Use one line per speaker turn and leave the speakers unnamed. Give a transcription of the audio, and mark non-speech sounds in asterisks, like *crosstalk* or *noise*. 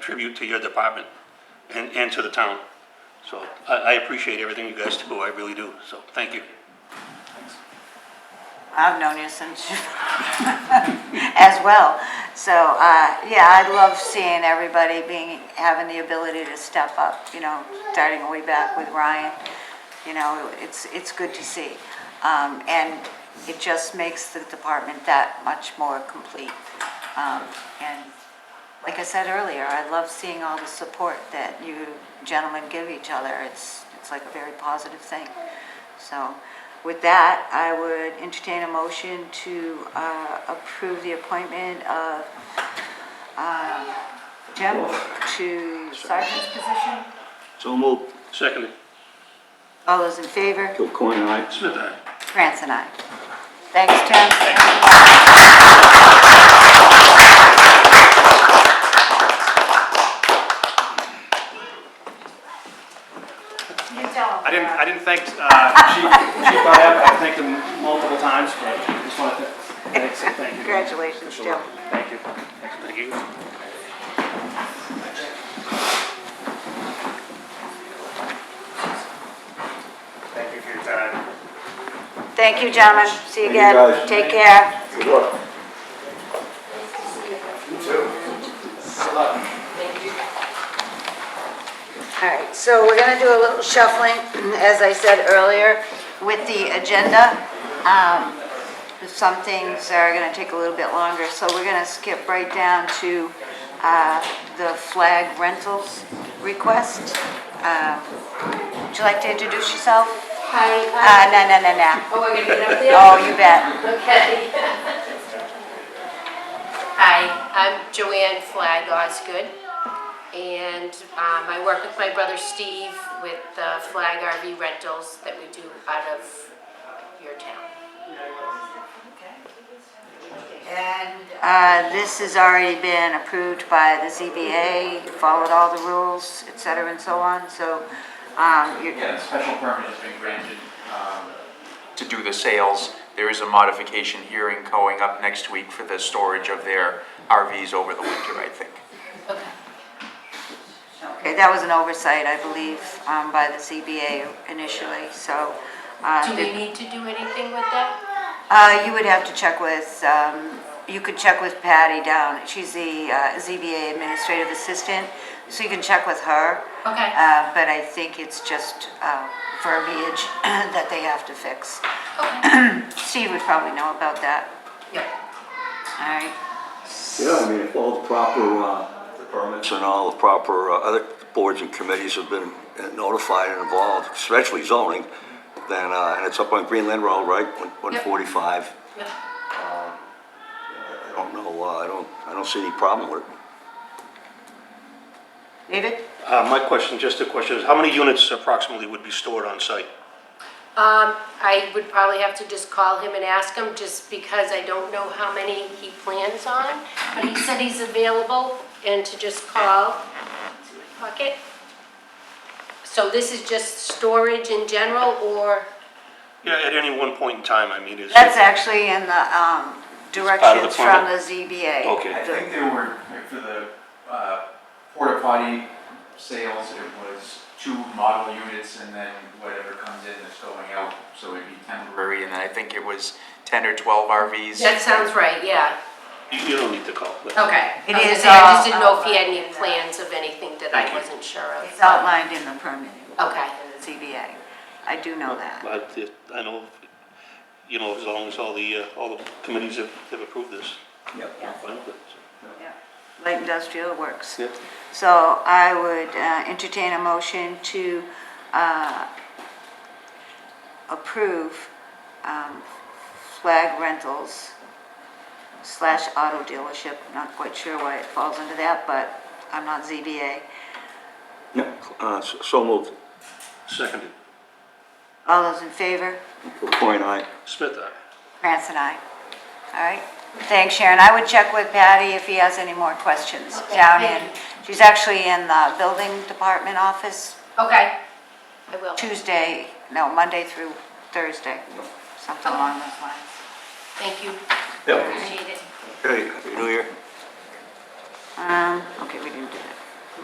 tribute to your department and, and to the town. So I, I appreciate everything you guys do, I really do, so thank you.
I've known you *laughs* since, as well. So, uh, yeah, I love seeing everybody being, having the ability to step up, you know, starting way back with Ryan. You know, it's, it's good to see. Um, And it just makes the department that much more complete. Um, And like I said earlier, I love seeing all the support that you gentlemen give each other. It's, it's like a very positive thing. So with that, I would entertain a motion to uh, approve the appointment of uh, Jim to sergeant's position.
So moved.
Secondly,
All those in favor?
Kilcoyne, aye.
Smith, aye.
France and I. Thanks, Tim.
You tell them.
I didn't, I didn't thank uh, Chief Chief Byer, but I thanked him multiple times, but I just want to thank, say thank you.
Congratulations, Jim.
Thank you.
thank you.
Thank you for your time.
Thank you, gentlemen. See you
Thank you,
again.
guys.
Take care.
Good luck.
All right, so we're gonna do a little shuffling, as I said earlier, with the agenda. Um, Some things are gonna take a little bit longer, so we're gonna skip right down to uh, the flag rentals request. Um, Would you like to introduce yourself?
Hi, hi.
Uh, No, no, no, no.
Oh, we're gonna get up there?
Oh, you bet.
Okay. Hi, I'm Joanne Flag Osgood, and um, I work with my brother Steve with the Flag RV rentals that we do out of your town.
And uh, this has already been approved by the ZBA, followed all the rules, et cetera, and so on, so um, you-
Yeah, the special permit has been granted um, to do the sales. There is a modification hearing going up next week for the storage of their RVs over the winter, I think.
Okay.
Okay, that was an oversight, I believe, um, by the CBA initially, so. uh,
Do we need to do anything with that?
Uh, you would have to check with, um, you could check with Patty down, she's the uh, ZBA Administrative Assistant, so you can check with her.
Okay.
Uh, but I think it's just, uh, verbiage *clears throat* that they have to fix.
Okay.
*clears throat* Steve would probably know about that,
Yeah.
all right?
Yeah, I mean, if all the proper, uh, the permits and all the proper, uh, other boards and committees have been uh, notified and involved, especially zoning, then, uh, and it's up on Greenland Road, right? One-
Yep.
145.
Yeah.
I don't know, uh, I don't, I don't see any problem with it.
David?
Uh, my question, just a question, is how many units approximately would be stored on site?
Um, I would probably have to just call him and ask him, just because I don't know how many he plans on. But he said he's available and to just call. It's in my pocket. So this is just storage in general, or,
Yeah, at any one point in time, I mean, is.
That's actually in the, um, directions from the
permit.
ZBA.
Okay.
I think there were, for the uh, porta potty sales, it was two model units and then whatever comes in is going out, so it'd be temporary. And then I think it was 10 or 12 RVs.
that sounds right, yeah,
You you don't need to call. but-
okay.
It
I was gonna
is
say, I just
all
didn't know if he had
outlined
any
in that.
plans of anything that I wasn't sure of.
It's outlined in the permit.
Okay.
The ZBA, I do know that.
But it- I know, you know, as long as all the, uh, all the committees have, have approved this. I'm fine with it, so.
Yeah, Light industrial works.
Yeah.
So I would uh, entertain a motion to uh, approve um, flag rentals slash auto dealership, not quite sure why it falls under that, but I'm not ZBA.
Yeah, uh, s- so moved.
Seconded,
All those in favor?
Kilcoyne, aye.
Smith, aye.
Krantz and I. All right. Thanks, Sharon. I would check with Patty if he has any more questions
Okay,
down
thank
in,
you.
she's actually in the building department office
Okay, I will.
Tuesday, no, Monday through Thursday, something along those lines.
Thank you.
Yep.
Appreciate it.
Hey, Happy New Year.
Um, okay, we didn't do that.